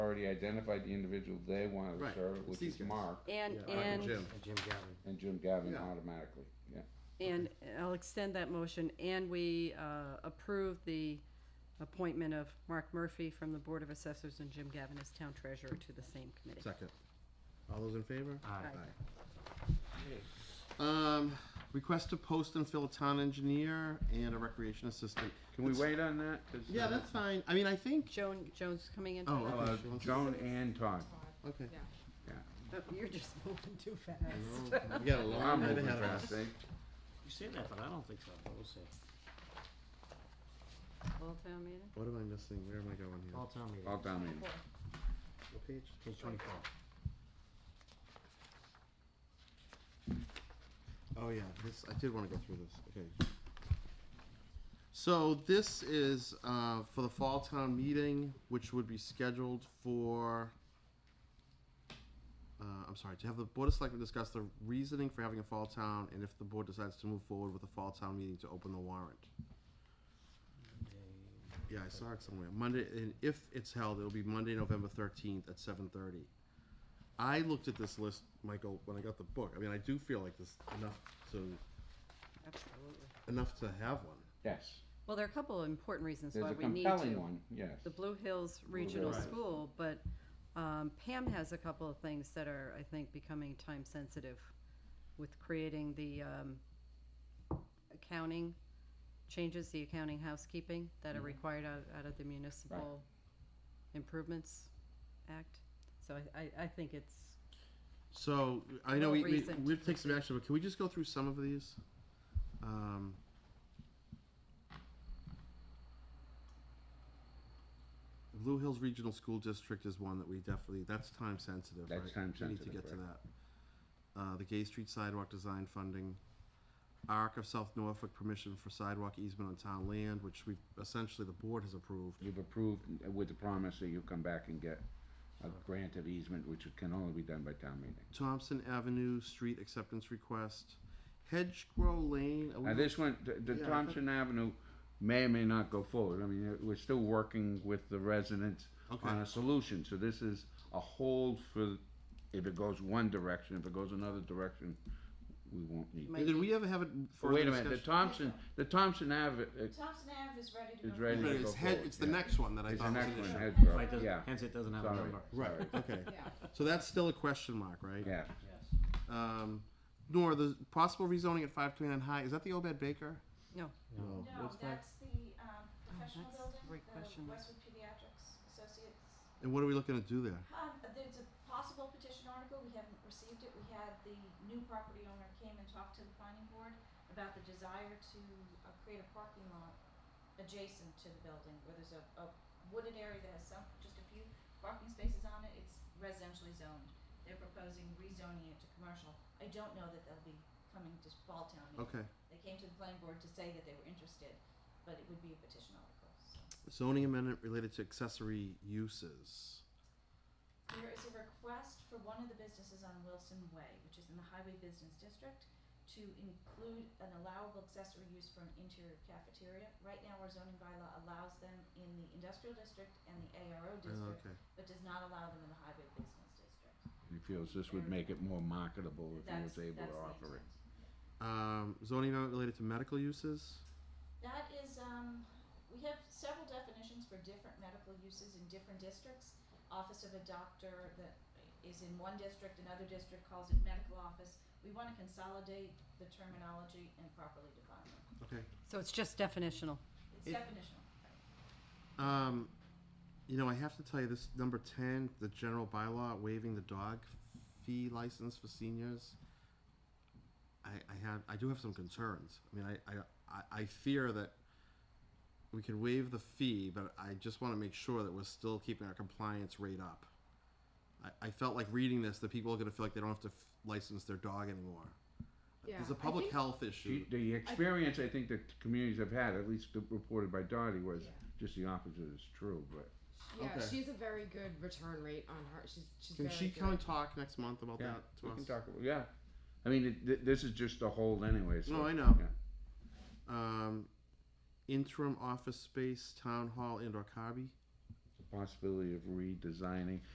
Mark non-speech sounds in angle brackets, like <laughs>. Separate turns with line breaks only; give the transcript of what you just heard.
already identified the individual they wanted to
Right,
serve,
it's
which
these
is
guys.
Mark
And,
Yeah, Mark
and.
and Jim.
Jim Gavin.
and Jim Gavin
Yeah.
automatically, yeah.
And I'll extend that motion, and we uh, approve the appointment of Mark Murphy from the Board of Assessors and Jim Gavin as Town Treasurer to the same committee.
Second. All those in favor?
Aye.
Aye. Um, request to post and fill a town engineer and a recreation assistant.
Can we
That's-
wait on that? 'Cause,
Yeah,
uh,
that's fine. I mean, I think,
Joan, Joan's coming in?
Oh,
tonight?
uh,
She wants to-
Joan and Todd,
okay.
yeah.
Oh, You're just <laughs> moving too
I know.
fast.
Oh, We got a
I'm
long night
moving
ahead of
fast,
us.
eh?
You say that, but I don't think so, but we'll see.
All town meeting?
What am I missing? Where am I going here?
All town meeting,
All town meeting.
What page?
page twenty-four.
Oh, yeah, this, I did wanna go through this, okay. So this is, uh, for the fall town meeting, which would be scheduled for, uh, I'm sorry, to have the Board of Selectmen discuss the reasoning for having a fall town, and if the board decides to move forward with a fall town meeting to open the warrant. Yeah, I saw it somewhere, Monday, and if it's held, it'll be Monday, November thirteenth at seven thirty. I looked at this list, Michael, when I got the book, I mean, I do feel like this enough to,
Absolutely.
enough to have one.
Yes,
Well, there are a couple of important reasons
there's
why
a
we need to.
compelling one, yes.
The Blue Hills Regional
Hills.
School, but um, Pam has a couple of things that are, I think, becoming time sensitive with creating the um, accounting changes, the accounting housekeeping that are required out, out of the Municipal Improvements Act. So I, I, I think it's,
So, I know we,
Well,
we,
recent.
we'll take some action, but can we just go through some of these? Um, Blue Hills Regional School District is one that we definitely, that's time sensitive, right?
That's time
We
sensitive,
need to get to
right.
that. Uh, the Gay Street Sidewalk Design Funding, ARC of South Norfolk Permission for Sidewalk Easement on Town Land, which we've, essentially the board has approved.
You've approved uh, with the promise that you'll come back and get a granted easement, which can only be done by town meeting.
Thompson Avenue Street Acceptance Request, Hedgerow Lane. are we
Now,
not-
this one, th- the
Yeah, I
Thompson Avenue may or may not go forward. I mean, uh, we're still working with the residents
Okay.
on a solution, so this is a hold for, if it goes one direction, if it goes another direction, we won't need.
Might-
Did we ever have it for
Wait a minute, the Thompson, the Thompson Ave, uh,
Thompson Ave is ready to go.
It's ready.
forward.
to
It's
go
head,
forward,
it's the
yeah.
next one that I
is the
thought was
next
an
one,
issue.
Hedgerow,
Right, doesn't-
yeah,
Hence it doesn't have a
Sorry.
number.
Right,
<laughs>
okay.
Yeah.
So that's still a question mark, right?
yeah.
Yes.
Um, Nor, the possible rezoning at five twenty-nine High, is that the Obed Baker?
no,
No.
No,
What's that?
that's the, um, professional
Oh, that's
building,
great question.
the Westwood Pediatrics Associates.
And what are we looking to do there?
Um, there's a possible petition article, we haven't received it, we had the new property owner came and talked to the planning board about the desire to, uh, create a parking lot adjacent to the building, where there's a, a wooded area that has some, just a few parking spaces on it, it's residentially zoned. They're proposing rezoning it to commercial, I don't know that they'll be coming to Fall Town meeting.
Okay,
They came to the planning board to say that they were interested, but it would be a petition article, so.
zoning amendment related to accessory uses.
There is a request for one of the businesses on Wilson Way, which is in the Highway Business District, to include an allowable accessory use for an interior cafeteria. Right now, our zoning bylaw allows them in the industrial district and the ARO
Uh,
district,
Okay,
but does not allow them in the Highway Business District.
He feels this would make it more marketable if he
That's,
was able to
that's the
offer it.
intent.
um, zoning amendment related to medical uses?
That is, um, we have several definitions for different medical uses in different districts. Office of a doctor that is in one district, another district calls it medical office. We wanna consolidate the terminology and properly define them.
Okay.
so it's just definitional.
It-
It's definitional.
Um, you know, I have to tell you this number ten, the general bylaw waiving the dog fee license for seniors. I, I have, I do have some concerns. I mean, I, I- I, I fear that we can waive the fee, but I just want to make sure that we're still keeping our compliance rate up. I, I felt like reading this, that people are going to feel like they don't have to f- license their dog anymore. There's a public health
She-
issue.
The experience I think that communities have had, at least reported by Dottie, was just the opposite is true, but
Yeah,
Okay.
she's a very good return rate on her. She's she's
Can
very
she
good.
come and talk next month about
yeah,
that to
we
us?
can talk, about- yeah. I mean, it- th- this is just a hold anyway, so.
No, I know.
yeah.
um, interim office space, town hall, indoor hobby.
possibility of redesigning